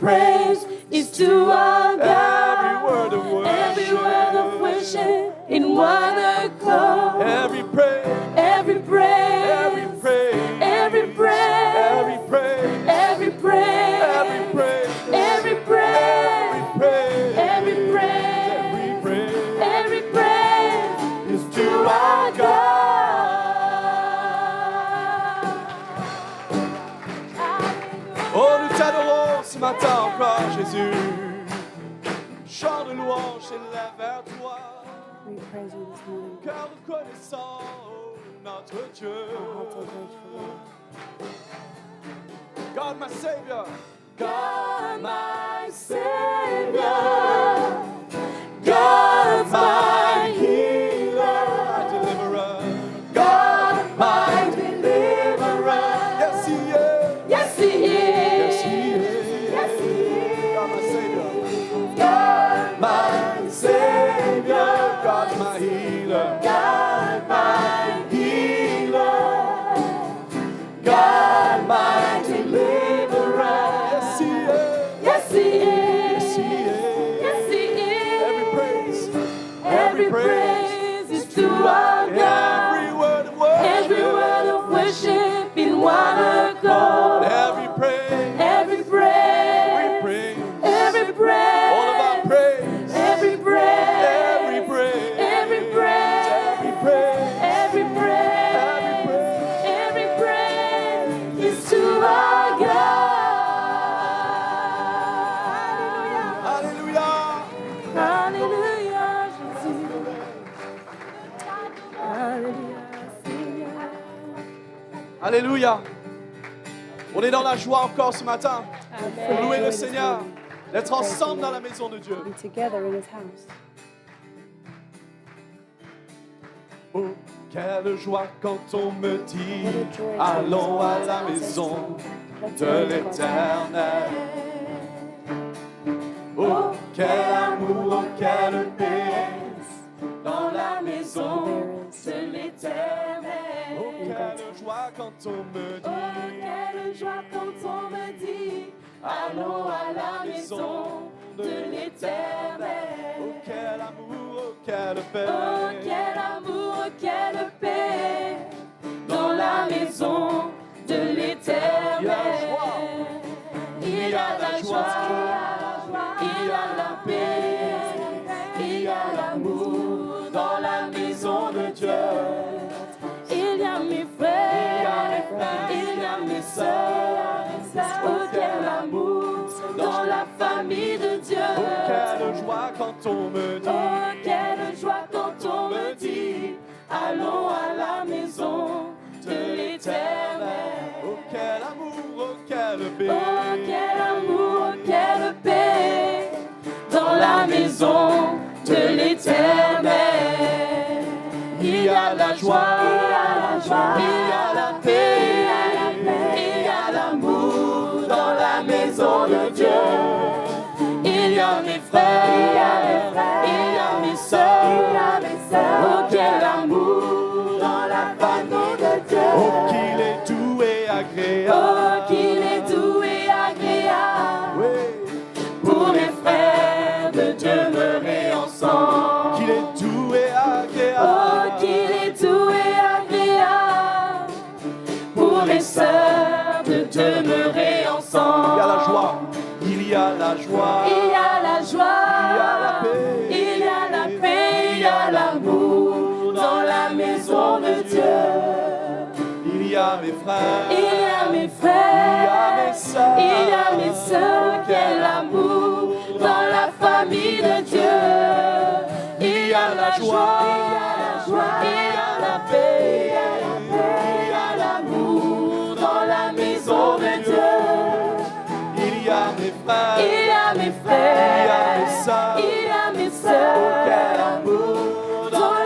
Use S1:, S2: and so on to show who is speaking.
S1: praise is to our
S2: Every
S1: God.
S2: word of worship.
S1: Every word of worship in one accord.
S2: Every praise.
S1: Every
S2: Every
S1: praise,
S2: praise.
S1: every praise,
S2: Every praise.
S1: every
S2: Every
S1: praise,
S2: praise.
S1: every praise,
S2: Every praise.
S1: every
S2: Every
S1: praise,
S2: praise
S1: every praise
S2: is
S1: to
S2: to
S1: our
S2: our God.
S1: God.
S2: Oh, nous t'adorons ce matin encore, Jésus. Chant de louange s'élève vers toi.
S3: We praise you this morning.
S2: Car reconnaissant oh, notre Dieu.
S3: Our hearts are grateful, Lord.
S2: God, my Savior.
S1: God, my Savior, God, my
S2: My
S1: healer,
S2: deliverer.
S1: God, my deliverer.
S2: Yes, He is.
S1: Yes, He
S2: Yes,
S1: is.
S2: He is.
S1: Yes, He
S2: God, my Savior.
S1: is. God,
S2: My Savior. God, my healer.
S1: God, my healer, God, my deliverer.
S2: Yes, He is.
S1: Yes, He
S2: Yes,
S1: is.
S2: He is.
S1: Yes, He is.
S2: Every praise.
S1: Every praise is to our
S2: Every
S1: God.
S2: word of worship.
S1: Every word of worship in one accord.
S2: Every praise.
S1: Every
S2: Every
S1: praise.
S2: praise.
S1: Every
S2: All of our praise.
S1: praise. Every
S2: Every
S1: praise.
S2: praise.
S1: Every praise.
S2: Every praise.
S1: Every
S2: Every
S1: praise.
S2: praise.
S1: Every praise is to our God.
S2: Alléluia.
S1: Alléluia, Jésus. Alléluia, Seigneur.
S2: Alléluia. On est dans la joie encore ce matin. Pour louer le Seigneur. D'être ensemble dans la maison de Dieu.
S3: Be together in His house.
S2: Oh, quelle joie quand on me dit
S3: What a joy to
S2: Allons à
S3: God's
S2: la
S3: house this
S2: maison
S3: morning. Let's
S2: de
S3: go to God's house.
S2: l'éternel. Oh, quel amour, oh, quelle paix dans la maison.
S3: There is
S1: De l'éternel.
S2: Oh, quelle joie quand on me
S1: Oh,
S2: dit
S1: quelle joie quand on me dit Allons à la maison de
S2: Oh,
S1: l'éternel.
S2: quel amour, oh, quelle
S1: Oh,
S2: paix
S1: quel amour, oh, quelle paix dans la maison de
S2: Il y
S1: l'éternel.
S2: a la joie.
S1: Il y a la joie, il y a la paix, il y a l'amour dans la maison de Dieu. Il y a mes frères, il y a mes sœurs. Oh, quel amour dans la famille de
S2: Oh,
S1: Dieu.
S2: quelle joie quand on me dit
S1: Oh, quelle joie quand on me dit Allons à la maison de l'éternel.
S2: Oh, quel amour, oh, quelle paix
S1: Oh, quel amour, oh, quelle paix dans la maison de l'éternel. Il y a la joie, il y a la joie, il y a la paix, il y a l'amour dans la maison de Dieu. Il y a mes frères, il y a mes sœurs. Oh, quel amour dans la famille de
S2: Oh,
S1: Dieu.
S2: qu'il est doux et
S1: Oh,
S2: agréable
S1: qu'il est doux et agréable
S2: Oui.
S1: pour les frères de demeurer ensemble.
S2: Qu'il est doux et
S1: Oh,
S2: agréable
S1: qu'il est doux et agréable pour les sœurs de demeurer ensemble.
S2: Il y a la joie, il y a la joie.
S1: Il y a la
S2: la
S1: joie,
S2: paix.
S1: il y a la paix, il y a l'amour dans la maison de Dieu.
S2: Il y a mes frères,
S1: Il y a mes
S2: il y a
S1: frères,
S2: mes sœurs.
S1: il y a mes sœurs, quel amour dans la famille de Dieu. Il y a la joie, il y a la paix, il y a l'amour dans la maison de Dieu.
S2: Il y a mes frères,
S1: Il